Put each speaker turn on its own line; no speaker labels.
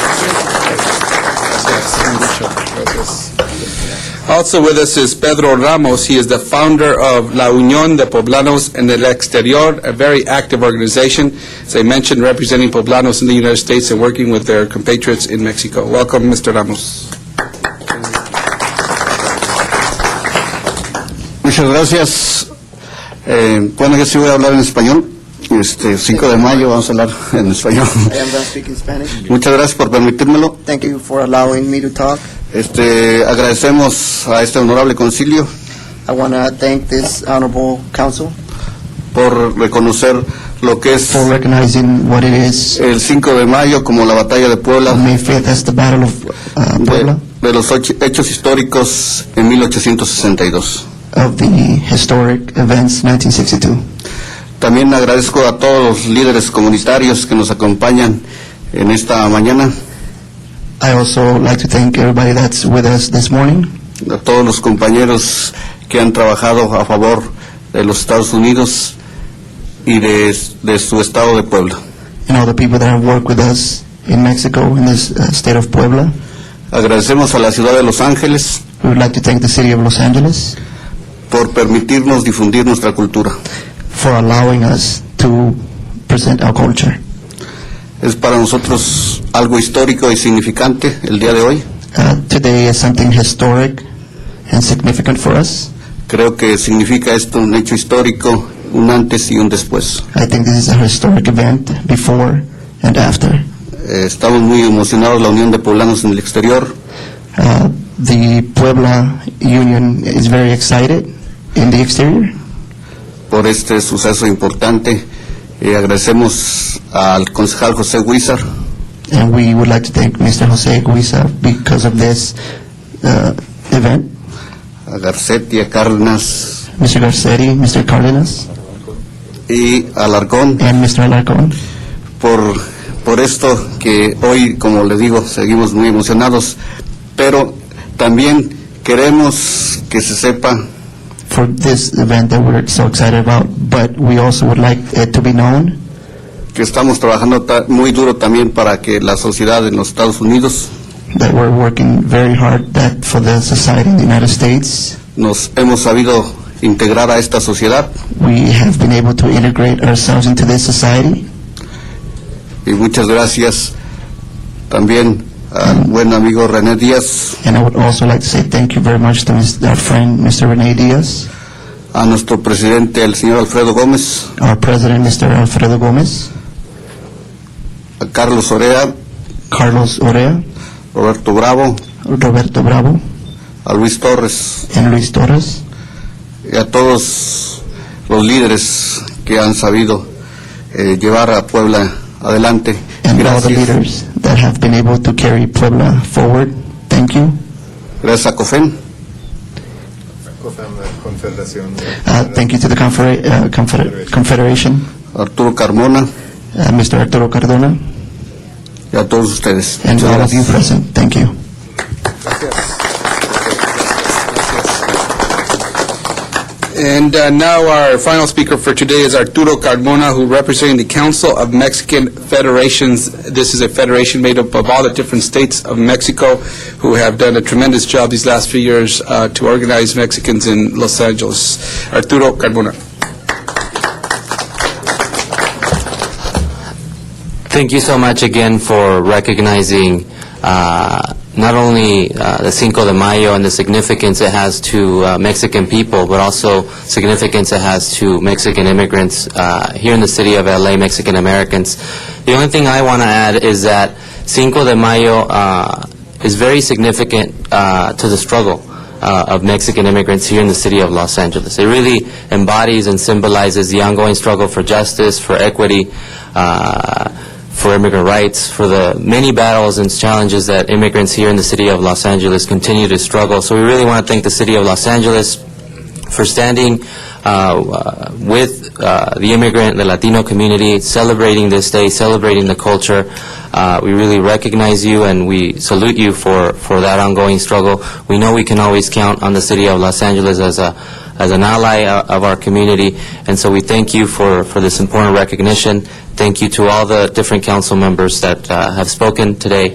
Also with us is Pedro Ramos. He is the founder of La Unión de Poblanos en el Exterior, a very active organization, as I mentioned, representing Poblanos in the United States and working with their compatriots in Mexico. Welcome, Mr. Ramos.
Muchas gracias. Eh, bueno, yo sí voy a hablar en español. Este 5 de mayo vamos a hablar en español.
I am done speaking Spanish.
Muchas gracias por permitírmelo.
Thank you for allowing me to talk.
Este, agradecemos a este honorable concilio
I want to thank this honorable council
por reconocer lo que es
for recognizing what it is,
el 5 de mayo como la batalla de Puebla
May 5th, as the Battle of uh,
de,
Puebla,
de los ocho- hechos históricos en 1862.
of the historic events 1962.
También agradezco a todos los líderes comunitarios que nos acompañan en esta mañana,
I also like to thank everybody that's with us this morning,
a todos los compañeros que han trabajado a favor de los Estados Unidos y de, de su estado de Puebla.
and all the people that have worked with us in Mexico, in this uh, state of Puebla.
Agradecemos a la ciudad de Los Ángeles
We would like to thank the city of Los Angeles
por permitirnos difundir nuestra cultura.
for allowing us to present our culture.
Es para nosotros algo histórico y significante el día de hoy.
Uh, Today is something historic and significant for us.
Creo que significa esto un hecho histórico, un antes y un después.
I think this is a historic event before and after.
Eh, estamos muy emocionados, la Unión de Poblanos en el Exterior,
Uh, the Puebla Union is very excited in the exterior
por este suceso importante. Eh, agradecemos al concejal José Huizar
and we would like to thank Mr. Jose Guisa because of this uh, event,
a Garcetti, a Cárdenas
Mr. Garcetti, Mr. Cardenas,
y a Alarcón
and Mr. Alarcón
por, por esto que hoy, como les digo, seguimos muy emocionados, pero también queremos que se sepa
for this event that we're so excited about. But we also would like it to be known
que estamos trabajando ta- muy duro también para que la sociedad en los Estados Unidos
that we're working very hard that for the society in the United States.
nos hemos sabido integrar a esta sociedad
We have been able to integrate ourselves into this society.
y muchas gracias también al buen amigo René Díaz,
And I would also like to say thank you very much to Mr. our friend, Mr. Rene Diaz,
a nuestro presidente, el señor Alfredo Gómez,
our president, Mr. Alfredo Gomez,
a Carlos Orea,
Carlos Orea,
Roberto Bravo,
Roberto Bravo,
a Luis Torres
and Luis Torres,
y a todos los líderes que han sabido eh, llevar a Puebla adelante.
and all the
Gracias,
leaders that have been able to carry Puebla forward. Thank you.
gracias a COFEN.
Confederación.
Uh, thank you to the Confeder- uh, Confeder- Confederation,
Arturo Carmona
uh, Mr. Arturo Cardona,
y a todos ustedes.
and
Muchas
all of you
gracias.
present. Thank you.
And uh, now our final speaker for today is Arturo Carmona, who representing the Council of Mexican Federations. This is a federation made up of all the different states of Mexico who have done a tremendous job these last few years uh, to organize Mexicans in Los Angeles. Arturo Carmona.
Thank you so much again for recognizing uh, not only uh, the Cinco de Mayo and the significance it has to uh, Mexican people, but also significance it has to Mexican immigrants uh, here in the city of LA, Mexican Americans. The only thing I want to add is that Cinco de Mayo uh, is very significant uh, to the struggle uh, of Mexican immigrants here in the city of Los Angeles. It really embodies and symbolizes the ongoing struggle for justice, for equity, uh, for immigrant rights, for the many battles and challenges that immigrants here in the city of Los Angeles continue to struggle. So we really want to thank the city of Los Angeles for standing uh, uh, with uh, the immigrant, the Latino community, celebrating this day, celebrating the culture. Uh, We really recognize you, and we salute you for for that ongoing struggle. We know we can always count on the city of Los Angeles as a as an ally uh, of our community, and so we thank you for for this important recognition. Thank you to all the different council members that uh, have spoken today,